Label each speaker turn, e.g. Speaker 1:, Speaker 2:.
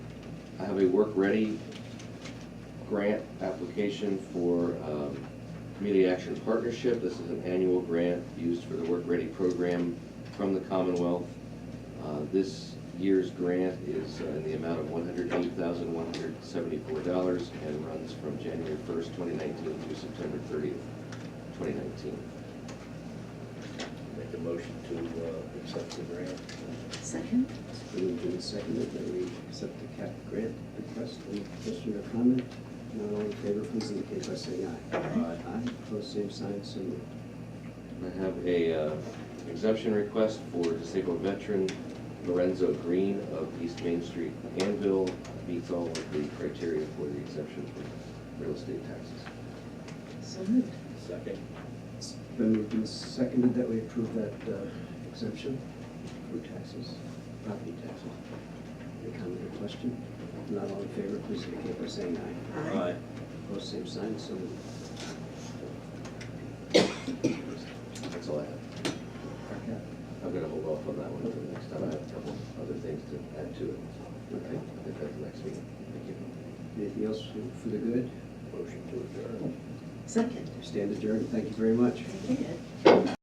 Speaker 1: have a work-ready grant application for um, Community Action Partnership. This is an annual grant used for the Work Ready program from the Commonwealth. Uh, This year's grant is uh, in the amount of one hundred eight thousand, one hundred seventy-four dollars and runs from January first, twenty nineteen through September thirtieth, twenty nineteen.
Speaker 2: Make a motion to uh, accept the grant.
Speaker 3: Second?
Speaker 4: Moved and seconded that we accept the cap grant request. Any question or comment? Not all in favor, please indicate by saying aye.
Speaker 2: Aye.
Speaker 4: Aye, opposed, same sign, so moved.
Speaker 1: I have a uh, exemption request for disabled veteran Lorenzo Green of East Main Street, Anvil, meets all of the criteria for the exemption for real estate taxes.
Speaker 3: So moved.
Speaker 2: Second.
Speaker 4: It's Been moved and seconded that we approve that uh, exemption for taxes, property taxes. Any comment or question? Not all in favor, please indicate by saying aye.
Speaker 2: Aye.
Speaker 4: Opposed, same sign, so moved.
Speaker 1: That's all I have.
Speaker 4: Okay.
Speaker 1: I'm gonna hold off on that one until next time. I have a couple other things to add to it. Okay, I think that's next meeting. Thank you.
Speaker 4: Anything else for- for the good?
Speaker 2: Motion to adjourn.
Speaker 3: Second?
Speaker 4: Stand adjourned, thank you very much.
Speaker 3: Thank you.